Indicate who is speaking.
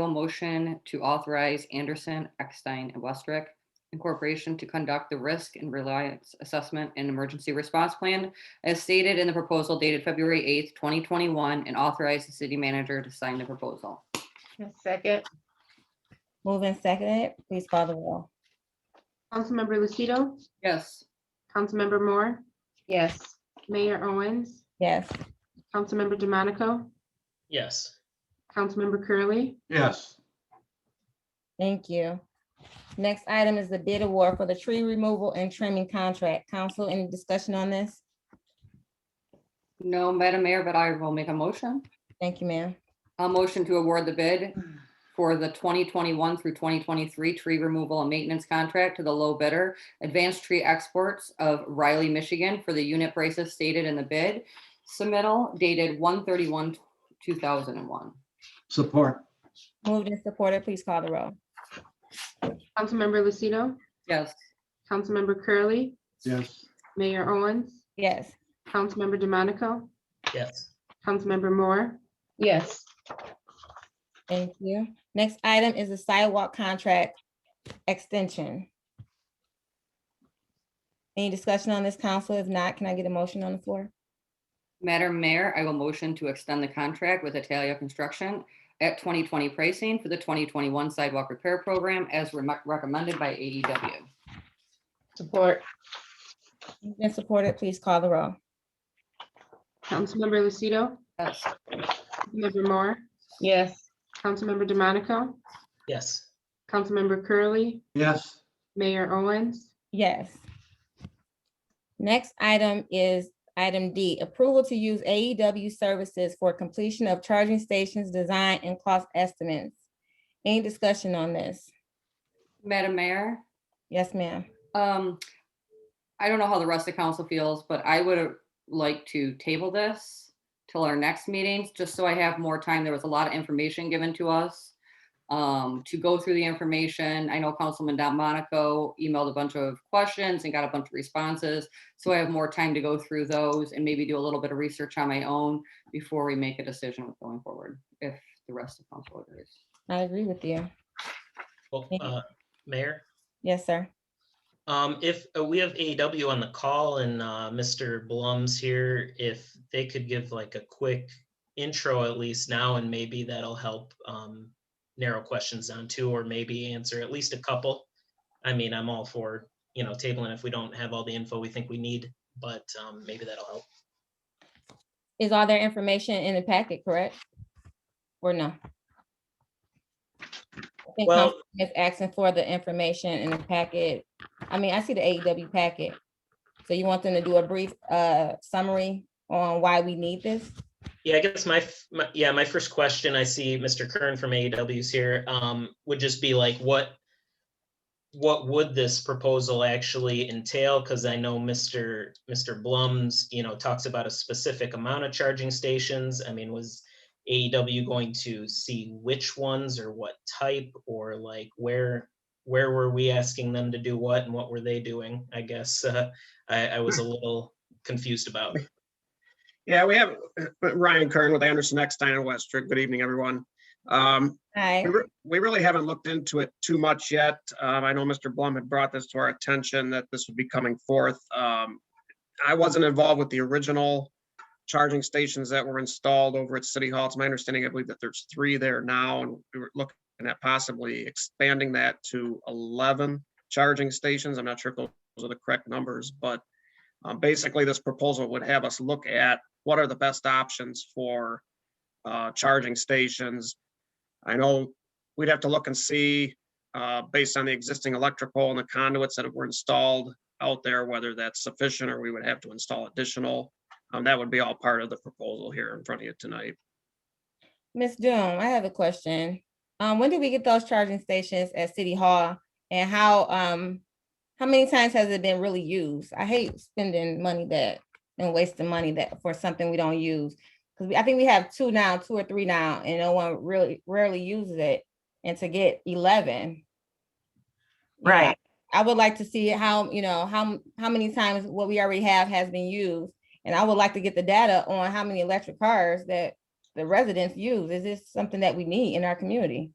Speaker 1: Bill motion to authorize Anderson, Eckstein, and Westrick Incorporation to conduct the risk and reliance assessment and emergency response plan as stated in the proposal dated February eighth, twenty twenty-one, and authorize the city manager to sign the proposal.
Speaker 2: Second,
Speaker 3: Moved and seconded, please call the roll.
Speaker 4: Councilmember Lucido,
Speaker 1: Yes.
Speaker 4: Councilmember Moore,
Speaker 2: yes.
Speaker 4: Mayor Owens,
Speaker 3: Yes,
Speaker 4: Councilmember DeMonico,
Speaker 5: yes,
Speaker 4: Councilmember Curley,
Speaker 6: yes,
Speaker 3: thank you. Next item is the bid award for the tree removal and trimming contract. Council, any discussion on this?
Speaker 1: No, Madam Mayor, but I will make a motion.
Speaker 3: Thank you, ma'am.
Speaker 1: A motion to award the bid for the twenty twenty-one through twenty twenty-three tree removal and maintenance contract to the low bidder, Advanced Tree Exports of Riley, Michigan, for the unit prices stated in the bid. Submittal dated one thirty-one, two thousand and one.
Speaker 6: support,
Speaker 3: Moved and supported, please call the roll.
Speaker 4: Councilmember Lucido,
Speaker 1: Yes.
Speaker 4: Councilmember Curley,
Speaker 6: yes,
Speaker 4: Mayor Owens,
Speaker 3: Yes,
Speaker 4: Councilmember DeMonico,
Speaker 5: yes,
Speaker 4: Councilmember Moore,
Speaker 2: Yes,
Speaker 3: thank you. Next item is the sidewalk contract extension. Any discussion on this, council? If not, can I get a motion on the floor?
Speaker 1: Madam Mayor, I will motion to extend the contract with Italia Construction at twenty twenty pricing for the twenty twenty-one sidewalk repair program as re- recommended by AEW.
Speaker 2: support,
Speaker 3: Moved and supported, please call the roll.
Speaker 4: Councilmember Lucido,
Speaker 1: Yes.
Speaker 4: Councilmember Moore,
Speaker 2: yes.
Speaker 4: Councilmember DeMonico,
Speaker 5: yes,
Speaker 4: Councilmember Curley,
Speaker 6: yes,
Speaker 4: Mayor Owens,
Speaker 3: Yes. Next item is item D, approval to use AEW services for completion of charging stations design and cost estimates. Any discussion on this?
Speaker 1: Madam Mayor?
Speaker 3: Yes, ma'am.
Speaker 1: Um, I don't know how the rest of council feels, but I would uh, like to table this till our next meetings, just so I have more time. There was a lot of information given to us. Um, to go through the information. I know Councilman Don Monaco emailed a bunch of questions and got a bunch of responses. So I have more time to go through those and maybe do a little bit of research on my own before we make a decision with going forward, if the rest of council agrees.
Speaker 3: I agree with you.
Speaker 5: well,
Speaker 3: Yeah.
Speaker 5: uh, Mayor.
Speaker 3: Yes, sir.
Speaker 5: Um, if uh, we have AEW on the call and uh, Mr. Blum's here, if they could give like a quick intro at least now, and maybe that'll help um, narrow questions down to, or maybe answer at least a couple. I mean, I'm all for you know tabling if we don't have all the info we think we need, but um, maybe that'll help.
Speaker 3: Is all their information in the packet, correct? Or no? I think
Speaker 5: Well-
Speaker 3: Councilman is asking for the information in the packet. I mean, I see the AEW packet. So you want them to do a brief uh summary on why we need this?
Speaker 5: Yeah, I guess my, f- my yeah, my first question, I see Mr. Kern from AEW's here, um, would just be like, what what would this proposal actually entail? Because I know Mr. Mr. Blum's, you know, talks about a specific amount of charging stations. I mean, was AEW going to see which ones or what type or like where where were we asking them to do what and what were they doing? I guess uh, I, I was a little confused about.
Speaker 7: Yeah, we have uh, Ryan Kern with Anderson Eckstein and Westrick. Good evening, everyone. Um,
Speaker 3: Hi,
Speaker 7: we re- We really haven't looked into it too much yet. Um, I know Mr. Blum had brought this to our attention that this would be coming forth. Um, I wasn't involved with the original charging stations that were installed over at City Hall. It's my understanding, I believe that there's three there now, and we were looking at possibly expanding that to 11 charging stations. I'm not sure if those are the correct numbers, but um, basically, this proposal would have us look at what are the best options for uh, charging stations. I know we'd have to look and see, uh, based on the existing electrical and the conduits that were installed out there, whether that's sufficient or we would have to install additional. Um, that would be all part of the proposal here in front of you tonight.
Speaker 3: Ms. Doom, I have a question. Um, when did we get those charging stations at City Hall? And how um how many times has it been really used? I hate spending money that and wasting money that for something we don't use. Because I think we have two now, two or three now, and no one really rarely uses it. And to get eleven. you know,
Speaker 2: Right.
Speaker 3: I would like to see how, you know, how m- how many times what we already have has been used. And I would like to get the data on how many electric cars that the residents use? Is this something that we need in our community?